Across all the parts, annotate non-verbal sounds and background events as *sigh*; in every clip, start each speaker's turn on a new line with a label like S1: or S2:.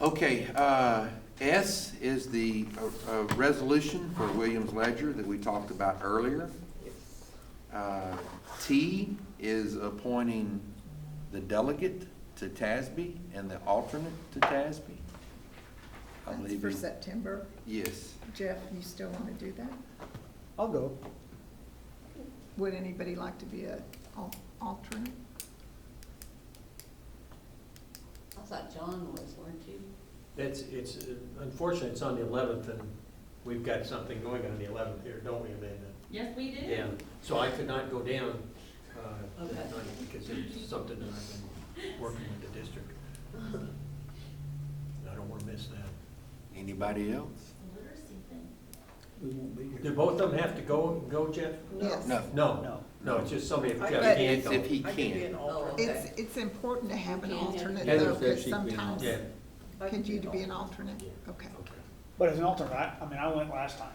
S1: Okay, uh, S is the uh, uh, resolution for Williams Ledger that we talked about earlier. Uh, T is appointing the delegate to TASB and the alternate to TASB. I
S2: That's
S1: believe
S2: for
S1: you-
S2: September.
S1: Yes.
S2: Jeff, you still want to do that?
S3: I'll go.
S2: Would anybody like to be a al- alternate?
S4: I thought John was, weren't you?
S5: It's, it's, unfortunately, it's on the eleventh, and we've got something going on the eleventh here, don't we, Amanda?
S6: Yes, we do.
S5: Yeah, so I could not go down, uh, that
S4: Okay.
S5: night, because it's something that I've been working with the district. I don't wanna miss that.
S1: Anybody else?
S6: Literacy thing.
S3: We won't be
S5: Do
S3: here.
S5: both of them have to go, go, Jeff?
S2: Yes.
S1: No.
S5: No,
S3: No.
S5: no, it's just somebody, if
S7: I-
S5: Jeff
S2: but-
S5: can't
S1: It's
S5: go.
S1: if he
S7: I could be an
S1: can.
S4: Oh,
S7: alternate.
S2: It's, it's important to have an
S4: You can't do it.
S2: alternate
S5: Heather
S2: though,
S5: said
S2: because
S8: she'd be an
S2: sometimes,
S5: Yeah,
S7: I could
S2: can you to be
S7: an
S2: an alternate? Okay.
S5: okay.
S3: But as an alternate, I, I mean, I went last time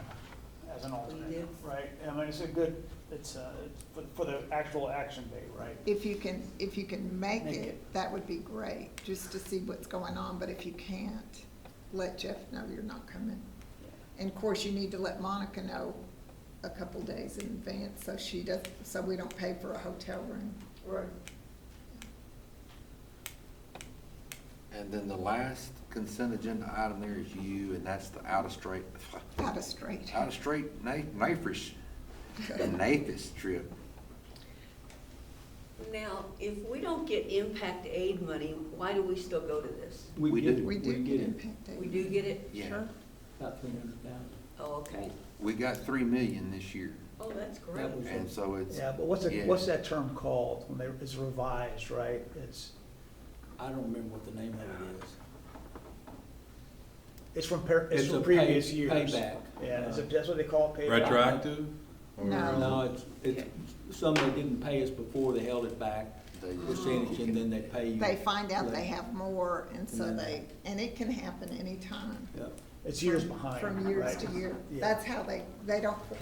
S3: as an alternate,
S7: did?
S3: right? I mean, it's a good, it's, uh, it's for, for the actual action day, right?
S2: If you can, if you can make
S3: Make
S2: it,
S3: it.
S2: that would be great, just to see what's going on, but if you can't, let Jeff know you're not coming. And of course, you need to let Monica know a couple days in advance, so she does, so we don't pay for a hotel room.
S7: Right.
S1: And then the last consent agenda item there is you, and that's the out of straight, *laughs*
S2: Out of straight.
S1: out of straight na- NAFIS, the NAFIS trip.
S4: Now, if we don't get impact aid money, why do we still go to this?
S1: We
S8: get
S1: do.
S8: it.
S2: We do get impacted.
S4: We do get it?
S1: Yeah.
S4: Sure.
S8: About three hundred thousand.
S4: Oh, okay.
S1: We got three million this year,
S4: Oh, that's great.
S3: That was-
S1: and so it's,
S3: Yeah, but what's, that-
S1: Yeah.
S3: what's that term called when they, it's revised, right? It's,
S8: I don't remember what the name of it is.
S3: it's from, par- it's
S8: a
S3: from
S8: pay-
S3: previous years.
S8: Payback.
S3: Yeah, is
S8: Uh,
S3: it, that's what they call it, payback?
S9: Retroactive? or-
S2: No.
S8: No, it's, it's, some they didn't pay us before, they held it back
S1: they just,
S8: percentage and then they pay you.
S2: They find out they
S8: later.
S2: have more, and so
S8: And then-
S2: they, and it can happen anytime.
S8: Yeah.
S3: It's years behind,
S2: From years
S3: right?
S2: to year.
S3: Yeah.
S2: That's how they, they don't,
S8: And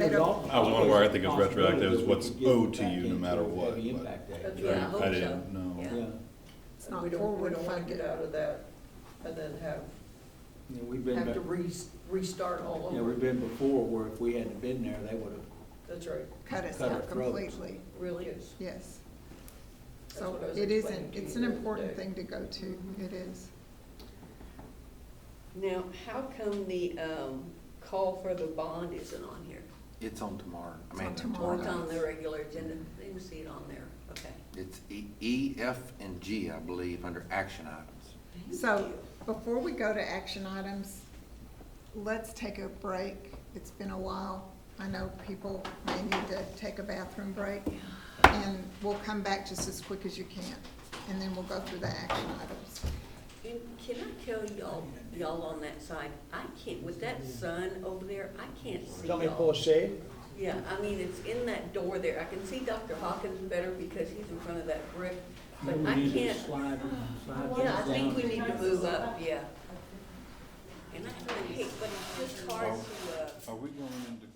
S2: they
S8: there's
S2: don't,
S8: also
S9: I was wondering where I think it's
S8: possibility
S9: retroactive, is
S8: that we
S9: what's
S8: could get
S9: owed to
S8: back
S9: you no
S8: into
S9: matter
S8: a
S9: what,
S8: heavy
S9: but-
S8: impact aid.
S7: Okay. Yeah, I hope
S9: I
S7: so.
S9: didn't know.
S4: Yeah.
S8: Yeah,
S2: it's
S7: We
S2: not
S7: don't, we
S2: forward
S7: don't want to
S2: funded.
S7: get out of that and then have,
S8: Yeah, we've been,
S7: have to
S8: back-
S7: re, restart all
S8: yeah,
S7: over.
S8: we've been before where if we hadn't been there, they would have
S7: That's right,
S2: Cut us
S8: Cut our
S2: out
S8: throats.
S2: completely,
S7: really is.
S2: yes.
S7: That's
S2: So
S7: what I was
S2: it
S7: explaining
S2: isn't,
S7: to you
S2: it's an
S7: the other
S2: important
S7: day. Mm-hmm.
S2: thing to go to, it is.
S4: Now, how come the um, call for the bond isn't on here?
S1: it's on tomorrow. I
S2: It's on
S1: mean,
S2: tomorrow.
S4: Or it's on
S1: night.
S4: the regular agenda? I didn't see it on there. Okay.
S1: It's E, E, F, and G, I believe, under action items.
S4: Thank
S2: So
S4: you.
S2: before we go to action items, let's take a break. It's been a while. I know people may need to take a bathroom break. And we'll come back just as quick as you can, and then we'll go through the action items.
S4: And can I tell y'all, y'all on that side, I can't, with that sun over there, I can't see
S3: Tell me to pull a
S4: y'all.
S3: shade?
S4: Yeah, I mean, it's in that door there. I can see Dr. Hawkins better because he's in front of that brick, but
S8: Maybe we
S4: I
S8: need to
S4: can't.
S8: Slide, slide
S4: Yeah, I
S8: this
S4: think we
S8: down.
S4: need to move up, yeah. And I kinda hate, but it's just hard to, uh.
S9: Are we going into